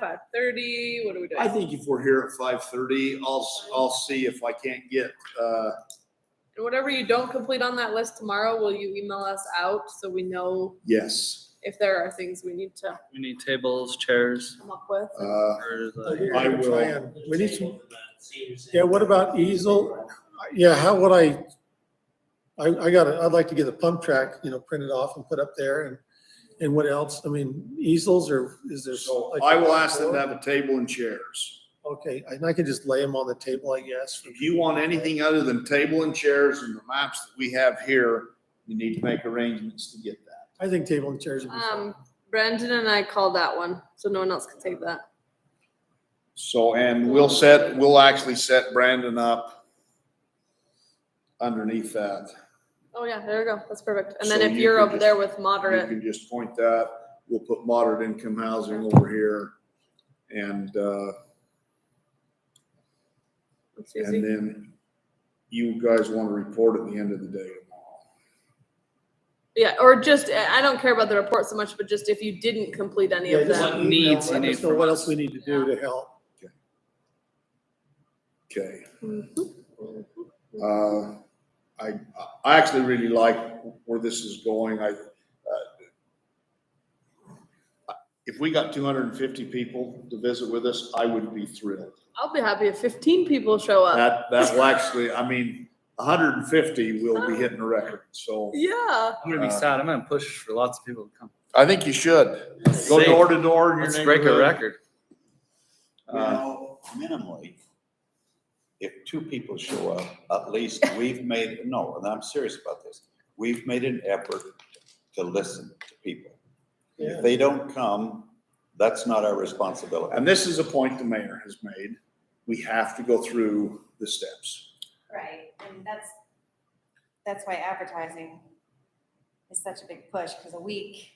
five thirty, what are we doing? I think if we're here at five thirty, I'll, I'll see if I can't get, uh, And whatever you don't complete on that list tomorrow, will you email us out so we know yes, if there are things we need to We need tables, chairs, come up with? uh, or Oh, the- I will- Try and- We need some, Yeah, yeah, what about easel? yeah, how would I? I, I gotta, I'd like to get a pump track, you know, printed off and put up there and, and what else? I mean, easels or is there? so like- I will ask them to have a table and chairs. Okay, and I can just lay them on the table, I guess. If you want anything other than table and chairs and the maps that we have here, you need to make arrangements to get that. I think table and chairs would be fine. Um, Brandon and I called that one, so no one else can take that. So, and we'll set, we'll actually set Brandon up underneath that. Oh yeah, there you go. That's perfect. And then So if you you're could over there just- with You moderate, can just point that, we'll put moderate income housing over here. And, uh, it's and easy. then you guys want to report at the end of the day tomorrow. Yeah, or just, I I don't care about the report so much, but just if you didn't complete any Yeah, of just What them. an needs email, you let us need know from What us. else we need to do to help? Okay. Mhm. Uh, I, I actually really like where this is going. I, uh, if we got two hundred and fifty people to visit with us, I would be thrilled. I'll be happy if fifteen people show up. That, that will actually, I mean, hundred and fifty will be hitting a record, so. Yeah. I'm gonna be sad. I'm gonna push for lots of people to come. I think you should. Go Safe. door to door in your Let's neighborhood. break a record. You Uh, know, minimally, if two people show up, at least we've made, no, and I'm serious about this, we've made an effort to listen to people. If they don't come, that's not our responsibility. And this is a point the mayor has made. We have to go through the steps. Right, and that's, that's why advertising is such a big push, because a week,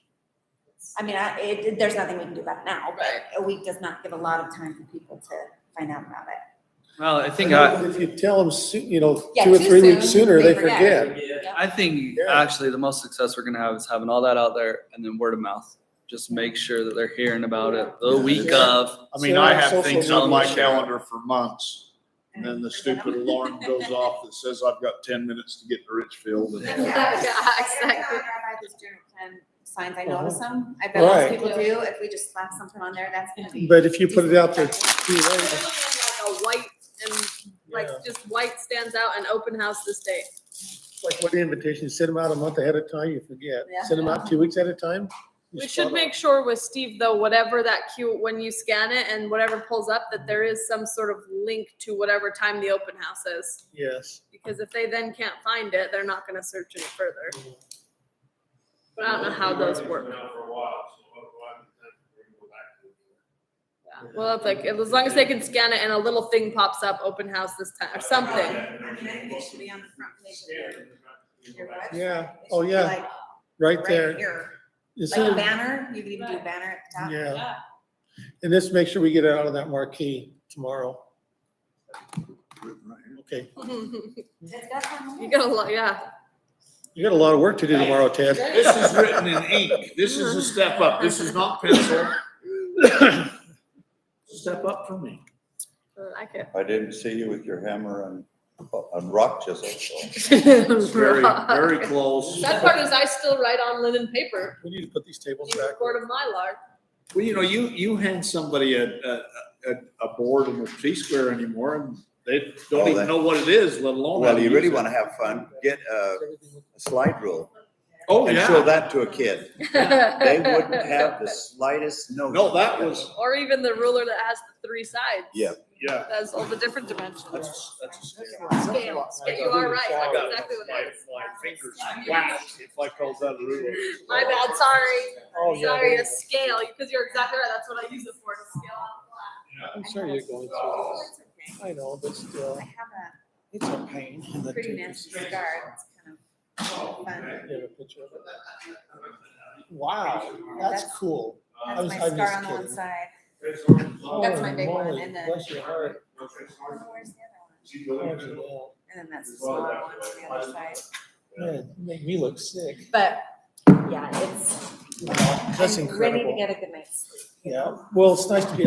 I mean, I, it, there's nothing we can do about it now, Right. but a week does not give a lot of time for people to find out about it. Well, I think I, If you tell them, you know, Yeah, two or too three weeks soon, sooner, they they forget. forget. I think Yeah. actually the most success we're gonna have is having all that out there and then word of mouth. Just make sure that they're hearing about it the Yeah. week Yeah. of. I mean, I Social have things on my media. calendar for months, and then the stupid alarm goes off that says I've got ten minutes to get to Richfield. and- Yeah, I exactly. these general plan signs, I notice them, I bet most Mhm. Right. people do, if we just slap something on there, that's gonna be. But if you put it out there too Like late, a white and like Yeah. just white stands out and open house this day. like what the invitation, send them out a month ahead of time, you forget. Yeah. Send them out two weeks at a time. you We spot should on. make sure with Steve though, whatever that cue, when you scan it and whatever pulls up, that there is some sort of link to whatever time the open house is. Yes. Because if they then can't find it, they're not gonna search any further. But I don't know how those work. Yeah. Well, it's like, as long as they can scan it and a little thing pops up, open house this time, or something. I mean, I think it should be on the front page of your, your website. Yeah. It Oh, should be yeah. like Right there. here. Instead Like a of- banner, you could even do a banner at the top. Yeah. And let's make sure we get it out of that marquee tomorrow. Okay. It's got some- You got a lot, yeah. You got a lot of work to do tomorrow, Ted. This is written in ink. This is a step up. This is not pencil. Step up for me. I like it. I didn't see you with your hammer and, and rock chisel, so. It's very, very close. That part is I still write on linen paper. We need to put these tables You back. record a mylar. Well, you know, you, you hand somebody a, a, a, a board and a T-square anymore, and they don't Oh, even that- know what it is, let alone. how Well, to you use really it. wanna have fun, get a slide rule Oh, and show yeah. that to a kid. They wouldn't have the slightest notion. No, that was, Or even the ruler that has the three sides. Yeah. yeah. That's all the different dimensions. That's, that's. Scale, scale, you are right, that's I got exactly what my- it is. My fingers whacked if I called that a ruler. My bad, sorry, Oh, yeah. sorry, a scale, because you're exactly right, that's what I use it for, to scale on the flat. I'm sorry you're going through It's okay. this. I know, but still, I have it's a pain. a pretty nasty scar. It's kind of fun. You have a picture of it? Wow, that's cool. I That's was- my I'm scar just on the one kidding. side. Holy my big one, moly, and then- Oh, Bless your heart. Oh, where's the other one? How'd you know? And then that's the smaller one on the other side. Man, you make me look sick. But, yeah, it's, Wow, That's I'm ready to incredible. get a good night's sleep. you Yeah, know? well, it's nice to be